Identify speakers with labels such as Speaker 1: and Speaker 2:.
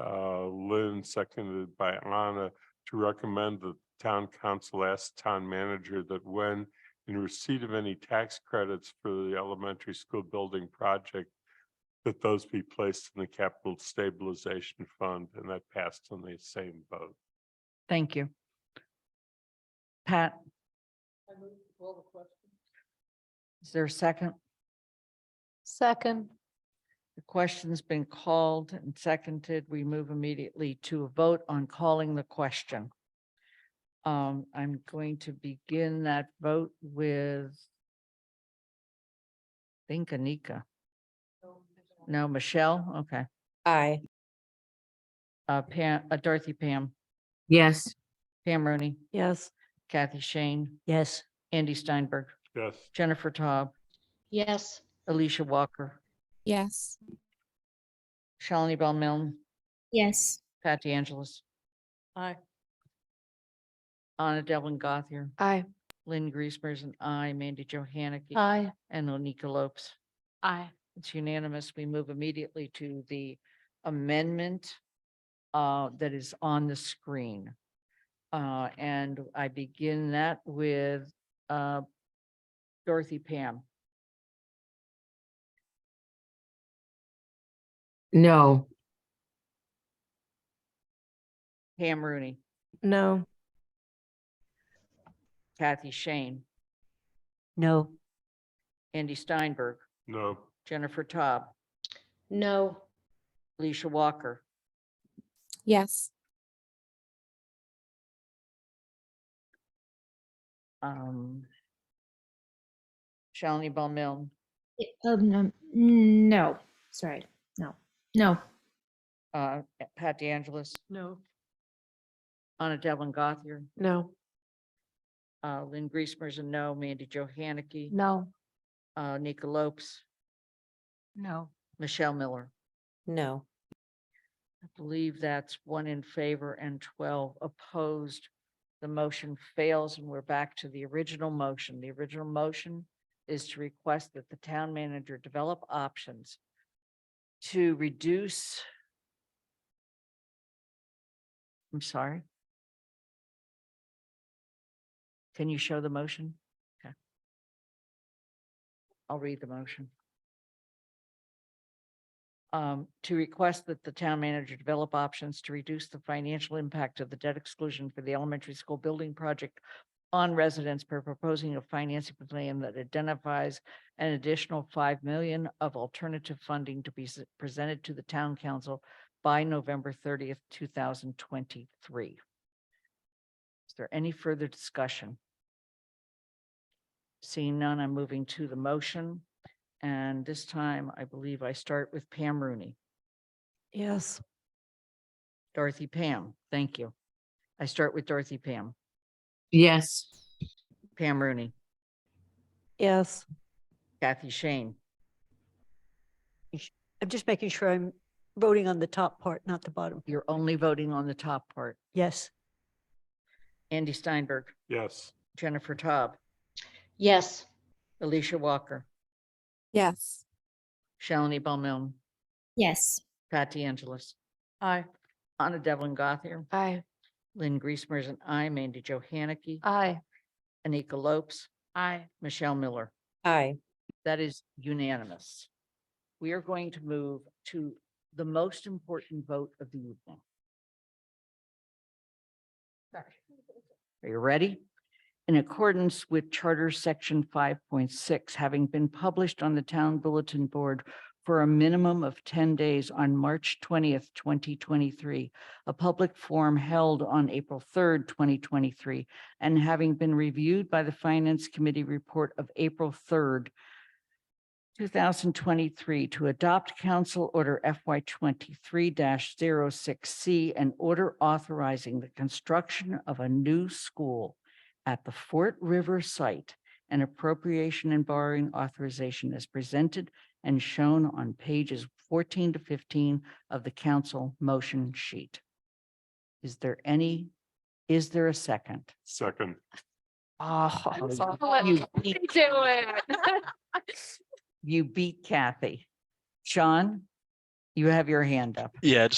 Speaker 1: uh, Lynn, seconded by Anna, to recommend the town council ask town manager that when in receipt of any tax credits for the elementary school building project, that those be placed in the capital stabilization fund, and that passed on the same vote.
Speaker 2: Thank you. Pat? Is there a second?
Speaker 3: Second.
Speaker 2: The question's been called and seconded. We move immediately to a vote on calling the question. Um, I'm going to begin that vote with I think Anika. No, Michelle? Okay.
Speaker 3: Aye.
Speaker 2: Uh, Pam, uh, Dorothy Pam,
Speaker 4: yes,
Speaker 2: Pam Rooney,
Speaker 3: Yes.
Speaker 2: Kathy Shane,
Speaker 3: Yes.
Speaker 2: Andy Steinberg,
Speaker 1: Yes,
Speaker 2: Jennifer Taub,
Speaker 3: Yes.
Speaker 2: Alicia Walker,
Speaker 5: Yes.
Speaker 2: Shalini Bell Milne,
Speaker 5: Yes.
Speaker 2: Pat DeAngelis. Aye. Anna Devlin Gothier,
Speaker 3: Aye.
Speaker 2: Lynn Griesmer is an aye, Mandy Johanicky.
Speaker 3: Aye.
Speaker 2: And Onika Lopes.
Speaker 3: Aye.
Speaker 2: It's unanimous. We move immediately to the amendment uh, that is on the screen. Uh, and I begin that with uh, Dorothy Pam.
Speaker 4: no,
Speaker 2: Pam Rooney,
Speaker 3: No.
Speaker 2: Kathy Shane,
Speaker 3: No.
Speaker 2: Andy Steinberg,
Speaker 1: no,
Speaker 2: Jennifer Taub,
Speaker 3: No.
Speaker 2: Alicia Walker,
Speaker 5: Yes.
Speaker 2: um, Shalini Bell Milne,
Speaker 6: Um, no, no, sorry, no, no,
Speaker 2: uh, Pat DeAngelis,
Speaker 3: No.
Speaker 2: Anna Devlin Gothier,
Speaker 3: No.
Speaker 2: uh, Lynn Griesmer is a no, Mandy Johanicky.
Speaker 6: no,
Speaker 2: Uh, Nika Lopes,
Speaker 3: No.
Speaker 2: Michelle Miller.
Speaker 3: No.
Speaker 2: I believe that's one in favor and twelve opposed. The motion fails and we're back to the original motion. The original motion is to request that the town manager develop options to reduce I'm sorry. Can you show the motion? Okay. I'll read the motion. um, to request that the town manager develop options to reduce the financial impact of the debt exclusion for the elementary school building project on residents by proposing a financing plan that identifies an additional five million of alternative funding to be s- presented to the town council by November thirtieth, two thousand twenty-three. Is there any further discussion? Seeing none, I'm moving to the motion. And this time, I believe I start with Pam Rooney.
Speaker 3: Yes.
Speaker 2: Dorothy Pam, thank you. I start with Dorothy Pam.
Speaker 4: yes,
Speaker 2: Pam Rooney,
Speaker 3: Yes.
Speaker 2: Kathy Shane,
Speaker 7: I'm just making sure I'm voting on the top part, not the bottom.
Speaker 2: you're only voting on the top part.
Speaker 7: Yes,
Speaker 2: Andy Steinberg,
Speaker 1: yes,
Speaker 2: Jennifer Taub,
Speaker 3: Yes.
Speaker 2: Alicia Walker,
Speaker 5: Yes.
Speaker 2: Shalini Bowman,
Speaker 5: Yes.
Speaker 2: Pat DeAngelis,
Speaker 3: Aye.
Speaker 2: Anna Devlin Gothier,
Speaker 3: Aye.
Speaker 2: Lynn Griesmer is an aye, Mandy Johanicky,
Speaker 3: Aye.
Speaker 2: Anika Lopes,
Speaker 3: Aye.
Speaker 2: Michelle Miller.
Speaker 3: Aye.
Speaker 2: That is unanimous. We are going to move to the most important vote of the evening. Are you ready? In accordance with Charter Section five point six, having been published on the Town Bulletin Board for a minimum of ten days on March twentieth, twenty twenty-three, a public forum held on April third, twenty twenty-three, and having been reviewed by the Finance Committee report of April third, 2023 to adopt Council Order FY 23-06C an order authorizing the construction of a new school at the Fort River site and appropriation and borrowing authorization as presented and shown on pages 14 to 15 of the council motion sheet. Is there any, is there a second?
Speaker 1: second,
Speaker 2: Oh,
Speaker 3: Do
Speaker 2: you beat- you beat Kathy. Sean, you have your hand up.
Speaker 8: Yeah,